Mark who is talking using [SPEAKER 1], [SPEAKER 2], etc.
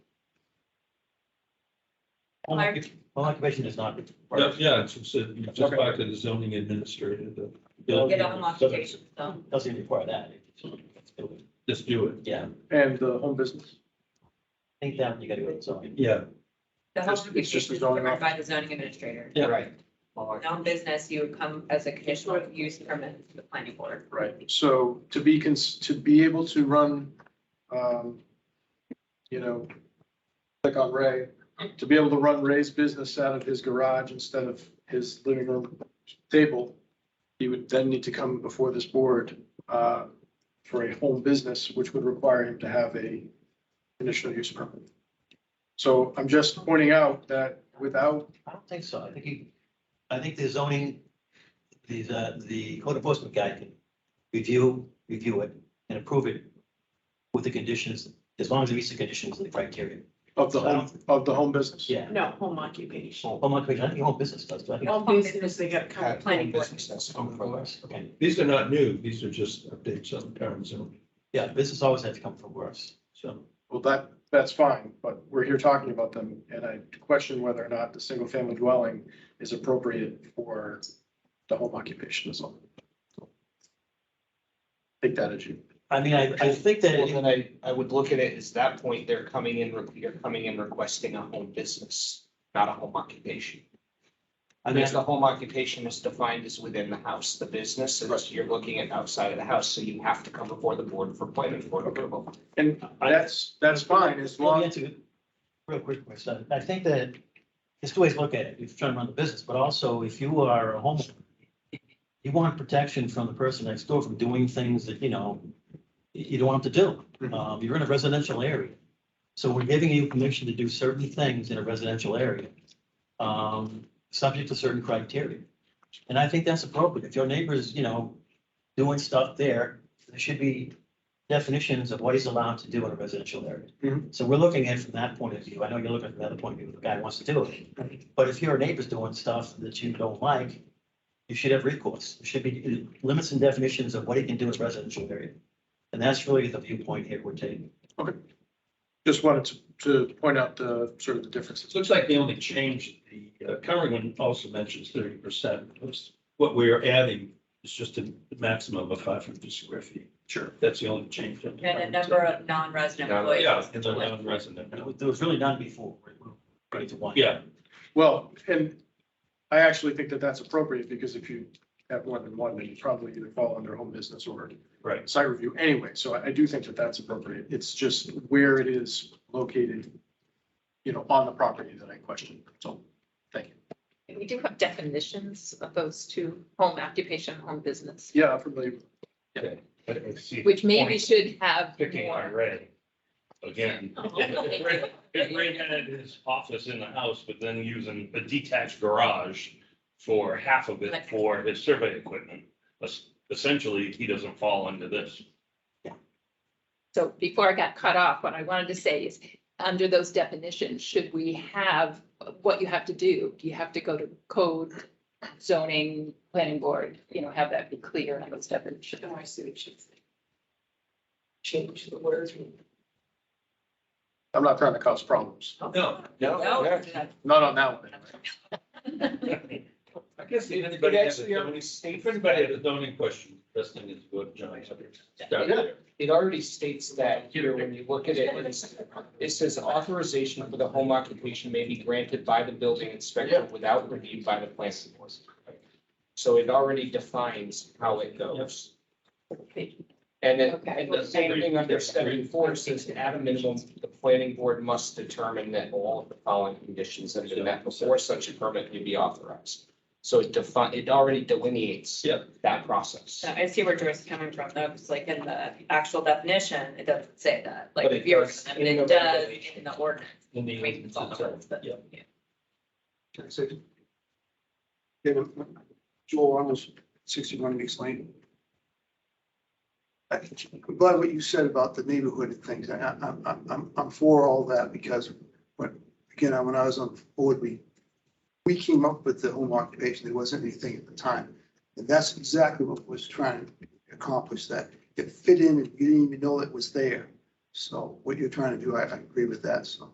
[SPEAKER 1] Home occup- home occupation does not
[SPEAKER 2] Yeah,
[SPEAKER 1] require,
[SPEAKER 2] yeah, it's just, you just back to the zoning administrator, the. building
[SPEAKER 3] Get a home occupation, so.
[SPEAKER 1] doesn't require that. It's building.
[SPEAKER 2] Just do it.
[SPEAKER 1] Yeah, I
[SPEAKER 4] and the home business.
[SPEAKER 1] think that you gotta go to zoning.
[SPEAKER 2] Yeah,
[SPEAKER 3] The home
[SPEAKER 4] It's- it's
[SPEAKER 3] occupation
[SPEAKER 4] just the
[SPEAKER 3] is
[SPEAKER 4] zoning
[SPEAKER 3] ordered by the zoning administrator.
[SPEAKER 2] Yeah.
[SPEAKER 1] Right.
[SPEAKER 3] Non-business, you would come as a conditional use permit to the planning board.
[SPEAKER 4] Right. So to be cons, to be able to run, um, you know, click on Ray, to be able to run Ray's business out of his garage instead of his living room table, he would then need to come before this board, uh, for a home business, which would require him to have a conditional use permit. So I'm just pointing out that without
[SPEAKER 1] I don't think so. I think you, I think the zoning, the, uh, the code enforcement guy can review, review it and approve it with the conditions, as long as it meets the conditions and the criteria.
[SPEAKER 4] Of the home, of the home business?
[SPEAKER 1] Yeah.
[SPEAKER 5] No, home occupation.
[SPEAKER 1] Home occupation, I think home business does, but I think.
[SPEAKER 5] Home business, they got kind of
[SPEAKER 3] Planning board.
[SPEAKER 1] Okay,
[SPEAKER 2] these are not new, these are just updates on current zoning,
[SPEAKER 1] yeah, business always has to come from worse.
[SPEAKER 2] so.
[SPEAKER 4] Well, that, that's fine, but we're here talking about them, and I question whether or not the single-family dwelling is appropriate for the home occupation as well. Take that as you.
[SPEAKER 1] I mean, I, I think that,
[SPEAKER 6] Well,
[SPEAKER 1] it-
[SPEAKER 6] then I, I would look at it as that point, they're coming in, re- you're coming in requesting a home business, not a home occupation.
[SPEAKER 1] I mean,
[SPEAKER 6] Because the home occupation is defined as within the house, the business, and you're looking at outside of the house, so you have to come before the board for planning board approval.
[SPEAKER 4] And that's, that's fine, as
[SPEAKER 1] Let me
[SPEAKER 4] long,
[SPEAKER 1] answer it Real quick, my son. I think that there's two ways to look at it. If you're trying to run the business, but also if you are a homeowner, you want protection from the person next door from doing things that, you know, you you don't want them to do.
[SPEAKER 4] Mhm.
[SPEAKER 1] Um, you're in a residential area. So we're giving you permission to do certain things in a residential area, um, subject to certain criteria. And I think that's appropriate. If your neighbor's, you know, doing stuff there, there should be definitions of what he's allowed to do in a residential area. So we're looking at it from that point of view. I know you're looking from the other point of view, the guy wants to do it. But if your neighbor's doing stuff that you don't like, you should have recourse. There should be limits and definitions of what he can do in a residential area. And that's really the viewpoint here we're taking.
[SPEAKER 4] just wanted to, to point out the, sort of the differences.
[SPEAKER 2] It looks like they only changed the, uh, current one also mentions thirty percent. What we're adding is just a maximum of five hundred square feet. Sure. That's the only change. And
[SPEAKER 3] And a number of non-resident employees.
[SPEAKER 2] Yeah, and the non-resident.
[SPEAKER 1] There was really none before. We're bringing it to one.
[SPEAKER 2] Yeah,
[SPEAKER 4] Well, and I actually think that that's appropriate, because if you have more than one, then you probably either fall under home business or
[SPEAKER 2] right.
[SPEAKER 4] site review anyway, so I I do think that that's appropriate. It's just where it is located, you know, on the property that I question, so, thank you.
[SPEAKER 7] We do have definitions of those two, home occupation, home business,
[SPEAKER 4] Yeah, I'm familiar.
[SPEAKER 7] which maybe should have
[SPEAKER 8] picking on
[SPEAKER 7] more.
[SPEAKER 8] Ray. Again. Ray Ray had his office in the house, but then using a detached garage for half of it for his survey equipment. Es- Essentially, he doesn't fall under this.
[SPEAKER 7] So before I got cut off, what I wanted to say is, under those definitions, should we have what you have to do? Do you have to go to code, zoning, planning board, you know, have that be clear in those definitions?
[SPEAKER 5] Oh, I see what you think. Change the words.
[SPEAKER 4] I'm not trying to cause problems,
[SPEAKER 2] No,
[SPEAKER 3] No,
[SPEAKER 6] No,
[SPEAKER 4] not on that one. anyway.
[SPEAKER 2] I guess if
[SPEAKER 6] But
[SPEAKER 2] anybody has a
[SPEAKER 6] actually, already
[SPEAKER 2] zoning, if
[SPEAKER 6] states,
[SPEAKER 2] anybody has a zoning question, best thing is go to John's. Start there.
[SPEAKER 6] it already states that here, when you look at it, it's- it says authorization for the home occupation may be granted by the building inspector without review by the planning board. So it already defines how it goes. And then,
[SPEAKER 7] Okay.
[SPEAKER 6] and the same thing under seven four says, at a minimum, the planning board must determine that all of the following conditions have been met before such a permit may be authorized. So it define, it already delineates
[SPEAKER 2] Yeah.
[SPEAKER 6] that process.
[SPEAKER 3] I see where Joyce is coming from, though, because like in the actual definition, it doesn't say that, like
[SPEAKER 6] But it
[SPEAKER 3] if you're,
[SPEAKER 6] does
[SPEAKER 3] I
[SPEAKER 6] in
[SPEAKER 3] mean,
[SPEAKER 6] the
[SPEAKER 3] it does
[SPEAKER 6] regulation.
[SPEAKER 3] in the ordinance.
[SPEAKER 2] In the-
[SPEAKER 3] We can follow the rules, but-
[SPEAKER 2] Yeah.
[SPEAKER 4] Yeah, but Joel, I was sixty-one Weeks Lane.
[SPEAKER 9] I'm glad what you said about the neighborhood and things. I, I, I'm- I'm, I'm for all that because when, again, when I was on the board, we, we came up with the home occupation. There wasn't anything at the time. And that's exactly what was trying to accomplish that. It fit in and you didn't even know it was there. So what you're trying to do, I, I agree with that, so.